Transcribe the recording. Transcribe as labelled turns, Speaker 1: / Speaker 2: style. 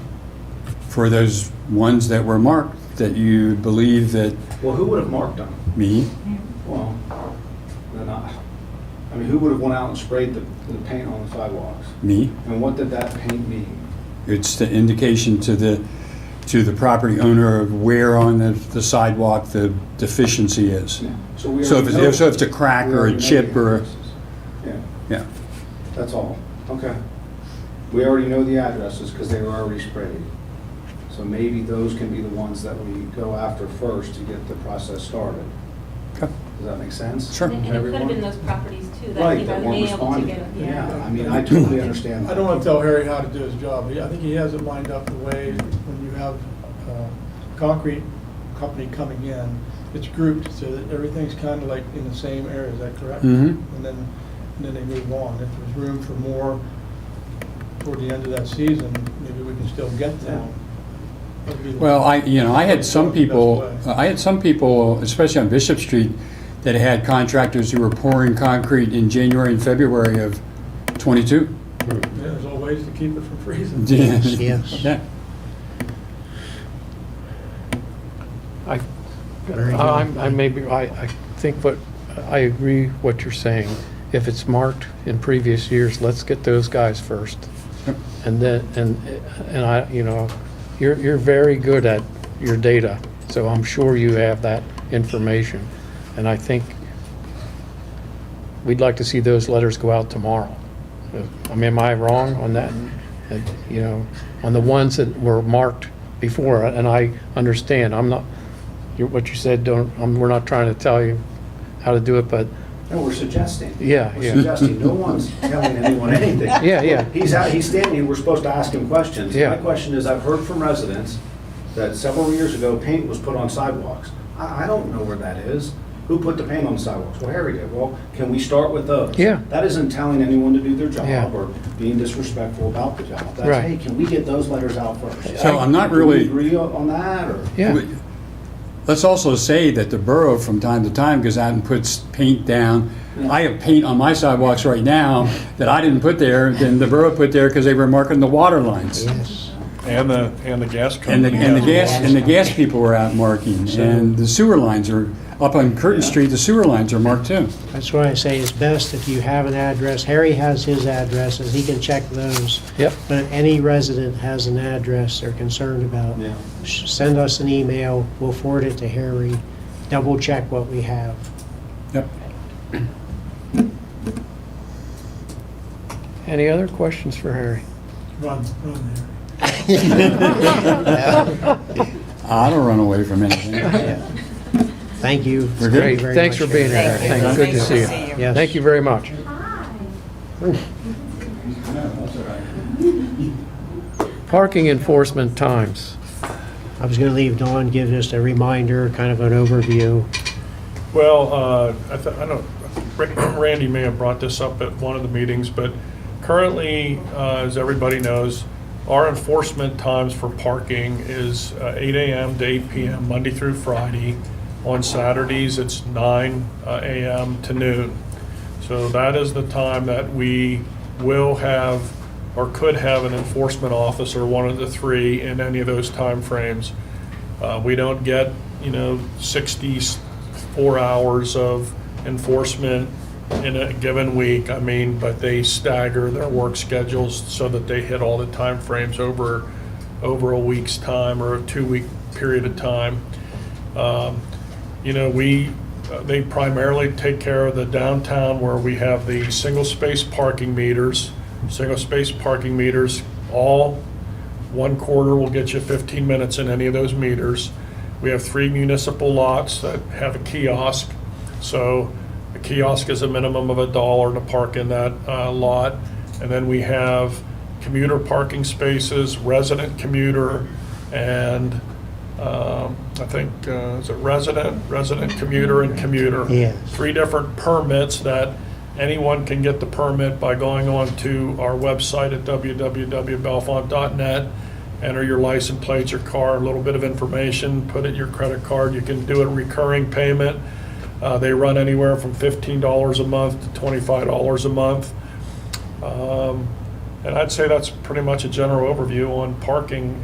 Speaker 1: for those ones that were marked that you believe that
Speaker 2: Well, who would have marked them?
Speaker 1: me,
Speaker 2: Well, then I, I mean, who would have went out and sprayed the, the paint on the sidewalks?
Speaker 1: me,
Speaker 2: And what did that paint mean?
Speaker 1: it's the indication to the, to the property owner of where on the the sidewalk the deficiency is.
Speaker 2: So we
Speaker 1: So if
Speaker 2: already know-
Speaker 1: it's, so if it's a crack
Speaker 2: we
Speaker 1: or
Speaker 2: already
Speaker 1: a
Speaker 2: know
Speaker 1: chip
Speaker 2: the
Speaker 1: or,
Speaker 2: addresses. Yeah,
Speaker 1: yeah,
Speaker 2: that's all. Okay. We already know the addresses because they were already sprayed. So maybe those can be the ones that we go after first to get the process started.
Speaker 1: Okay.
Speaker 2: Does that make sense?
Speaker 1: Sure.
Speaker 3: And it could have
Speaker 2: Everyone?
Speaker 3: been those properties too, that
Speaker 2: Right,
Speaker 3: he
Speaker 2: that
Speaker 3: might
Speaker 2: weren't
Speaker 3: be able to
Speaker 2: responding.
Speaker 3: get,
Speaker 2: Yeah, I
Speaker 3: yeah.
Speaker 2: mean, I totally understand.
Speaker 4: I don't want to tell Harry how to do his job. He- I think he has it lined up the way when you have a concrete company coming in, it's grouped so that everything's kind of like in the same area, is that correct?
Speaker 1: Mhm.
Speaker 4: And then, and then they move on. If there's room for more toward the end of that season, maybe we can still get them. That would be the-
Speaker 1: Well, I, you know, I had some people,
Speaker 4: Best way.
Speaker 1: I had some people, especially on Bishop Street, that had contractors who were pouring concrete in January and February of '22.
Speaker 4: There's always ways to keep it from freezing.
Speaker 5: Yes.
Speaker 1: Yeah.
Speaker 6: I, uh,
Speaker 5: Very good.
Speaker 6: I'm- I may be, I, I think what, I agree what you're saying. If it's marked in previous years, let's get those guys first. And then, and, and I, you know, you're, you're very good at your data, so I'm sure you have that information. And I think we'd like to see those letters go out tomorrow. Uh, I mean, am I wrong on that? Uh, You know, on the ones that were marked before, and I understand, I'm not, you- what you said, don't, um, we're not trying to tell you how to do it, but,
Speaker 2: No, we're suggesting.
Speaker 6: Yeah,
Speaker 2: We're
Speaker 6: yeah.
Speaker 2: suggesting, no one's telling anyone anything.
Speaker 6: Yeah, yeah.
Speaker 2: He's out, he's standing here, we're supposed to ask him questions.
Speaker 6: Yeah.
Speaker 2: My question is, I've heard from residents that several years ago, paint was put on sidewalks. I, I don't know where that is. Who put the paint on the sidewalks? Well, Harry did. Well, can we start with those?
Speaker 6: Yeah.
Speaker 2: That isn't telling anyone to do their
Speaker 6: Yeah.
Speaker 2: job or being disrespectful about the job. That's,
Speaker 6: Right.
Speaker 2: hey, can we get those letters out first?
Speaker 1: So I'm not
Speaker 2: Do we
Speaker 1: really-
Speaker 2: Agree on on that, or?
Speaker 6: yeah,
Speaker 1: Let's also say that the borough from time to time goes out and puts paint down. I have paint on my sidewalks right now that I didn't put there, then the borough put there because they were marking the water lines.
Speaker 5: Yes.
Speaker 7: And the, and the gas
Speaker 1: And the,
Speaker 7: company.
Speaker 1: and the
Speaker 7: has
Speaker 1: gas,
Speaker 7: one.
Speaker 1: and the gas people were out marking, and the sewer lines are, up on Curtin Street, the sewer lines are marked too.
Speaker 5: That's why I say it's best if you have an address. Harry has his addresses, he can check those.
Speaker 6: yep,
Speaker 5: But if any resident has an address they're concerned about,
Speaker 2: Yeah.
Speaker 5: sh- send us an email, we'll forward it to Harry, double check what we have.
Speaker 1: Yep.
Speaker 6: any other questions for Harry?
Speaker 4: Run, run there.
Speaker 1: I don't run away from anything.
Speaker 5: Thank you.
Speaker 1: We're good.
Speaker 5: Thank you
Speaker 6: Great,
Speaker 5: very
Speaker 6: thanks for
Speaker 5: much,
Speaker 6: being
Speaker 5: Harry.
Speaker 6: here, thanks, good to see you.
Speaker 5: Yes.
Speaker 6: Thank you very much. Parking enforcement times.
Speaker 5: I was gonna leave Dawn, give just a reminder, kind of an overview.
Speaker 7: Well, uh, I th- I don't, Ra- Randy may have brought this up at one of the meetings, but currently, uh, as everybody knows, our enforcement times for parking is uh, 8 AM to 8 PM, Monday through Friday. On Saturdays, it's 9 uh, AM to noon. So that is the time that we will have, or could have an enforcement officer, one of the three, in any of those timeframes. Uh, We don't get, you know, 64 hours of enforcement in a given week. I mean, but they stagger their work schedules so that they hit all the timeframes over, over a week's time or a two-week period of time. Um, You know, we, uh, they primarily take care of the downtown where we have the single-space parking meters. Single-space parking meters, all one quarter will get you 15 minutes in any of those meters. We have three municipal lots that have a kiosk, so a kiosk is a minimum of a dollar to park in that uh, lot. And then we have commuter parking spaces, resident commuter, and um, I think, uh, is it resident, resident commuter, and commuter?
Speaker 5: Yes.
Speaker 7: Three different permits that anyone can get the permit by going on to our website at www.belfont.net, enter your license plate, your car, a little bit of information, put in your credit card. You can do a recurring payment. Uh, They run anywhere from $15 a month to $25 a month. Um, And I'd say that's pretty much a general overview on parking